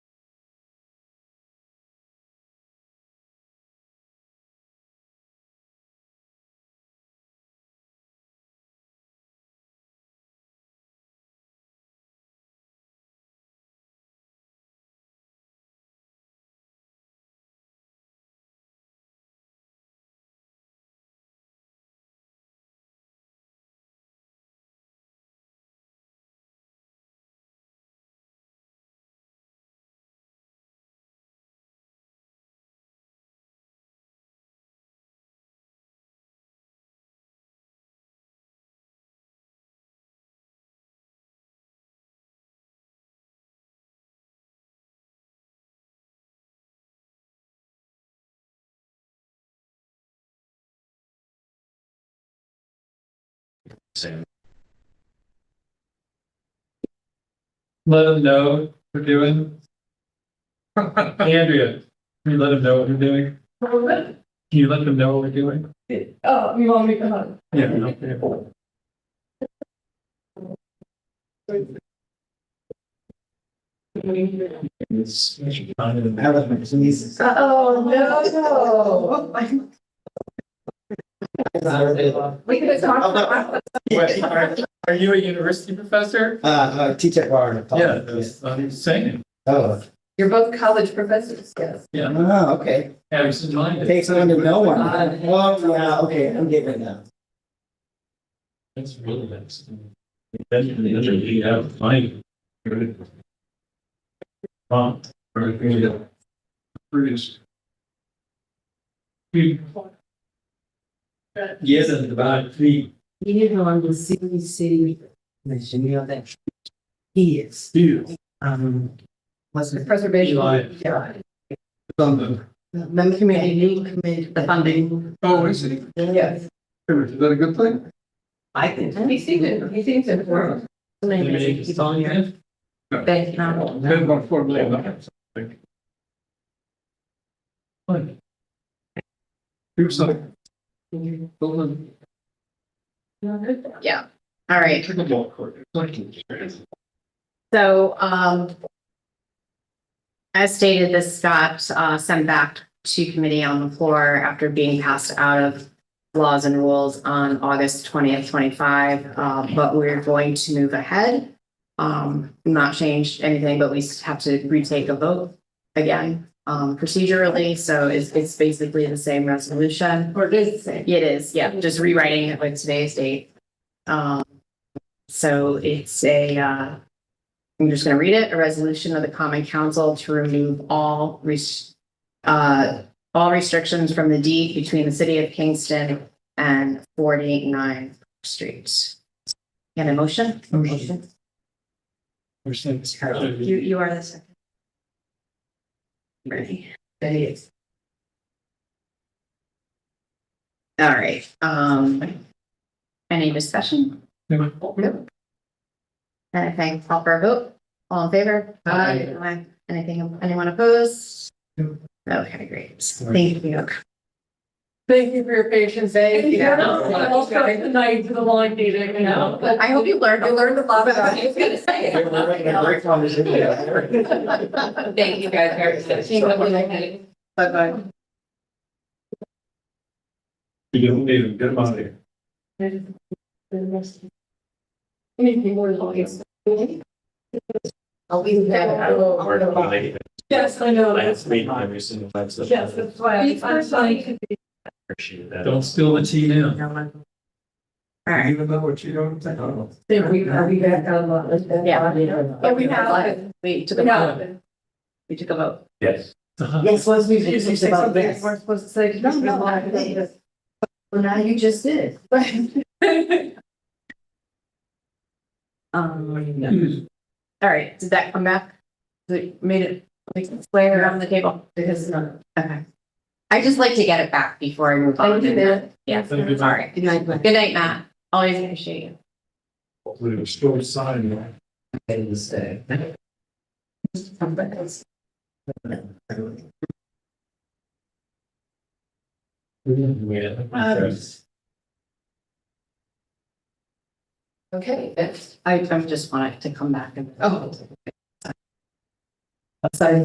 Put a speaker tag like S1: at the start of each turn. S1: soon.
S2: let them know what we're doing. Andrea, can you let them know what we're doing?
S3: Oh,
S2: Can you let them know what we're doing?
S3: you want me to come on?
S2: Yeah. okay.
S3: Oh, no. We could have talked.
S2: Wait, Are are you a university professor?
S4: Uh, uh, teach at Warren.
S2: Yeah, that's what I'm saying.
S4: Oh,
S3: You're both college professors, yes.
S4: oh, okay.
S2: Absent minded.
S4: Takes on to no one.
S3: Uh,
S4: Oh, yeah, okay, I'm getting it now.
S2: That's really nice. Definitely, you have fine. Prompt. Bruce. Yes, and about three.
S5: He is on the CBC, commission, you know that. He is, um, what's it,
S3: Preservation.
S2: Eli.
S3: Yeah.
S5: member community, new committee, the funding.
S2: Oh, is it?
S3: Yes.
S2: Is that a good thing?
S5: I think.
S3: He seems, in- he seems informed.
S5: Maybe He's on here. Thank you.
S2: Ten point four million dollars. Here's something.
S6: Yeah, all right, so, um. As stated, this got, uh, sent back to committee on the floor after being passed out of laws and rules on August twentieth, twenty-five, uh, but we're going to move ahead. Um, not change anything, but we s- have to retake a vote again, um, procedurally, so it's, it's basically the same resolution.
S3: Or does say.
S6: It is, yeah, just rewriting it with today's date. Um, so it's a, uh, I'm just gonna read it, a resolution of the common council to remove all res- uh, all restrictions from the deed between the city of Kingston and forty-nine Street. Get a motion? Motion. You, you are the second. Ready? Ready. All right, um. Any discussion? Anything, call for a vote? All in favor?
S3: Aye.
S6: Anything, anyone opposed?
S2: No.
S6: Okay, great. Thank you.
S3: Thank you for your patience. Thank
S6: you.
S3: I'll start the night to the line meeting, you know.
S6: I hope you learned.
S3: You learned a lot about it. I was gonna say.
S4: We're having a great conversation.
S3: Thank you guys very much.
S6: Bye-bye.
S2: You don't need them, get them out of here.
S3: Anything more lawyers?
S5: I'll leave that.
S3: Yes, I know.
S1: Last meeting, every single time. so-
S3: Yes, that's why I'm- I'm trying
S1: Appreciate that.
S2: Don't spill the tea now.
S6: All right,
S4: Even though what you don't think.
S3: to. We, are we back on the?
S6: Yeah.
S3: Yeah, we have.
S6: we took a
S3: We
S6: vote,
S3: have.
S6: we took a vote.
S1: Yes.
S2: Uh-huh.
S5: Yes, let's move
S3: Did you
S5: it
S3: say
S5: about
S3: something
S5: this.
S3: you weren't supposed to say?
S5: No, no, I think- Well, now you just did.
S6: Um,
S2: Yes.
S6: all right, did that come back? That made it, like, square on the table?
S3: Because no.
S6: Okay. I just like to get it back before I move on.
S3: Thank you, Matt.
S6: Yes,
S2: Thank you, Matt.
S6: sorry. Good night, Matt. Good night, Matt. Always appreciate you.
S1: We were still signing.
S4: Uh,
S3: Okay, that's.
S6: Oh. I, I just wanted to come back and.
S3: Oh.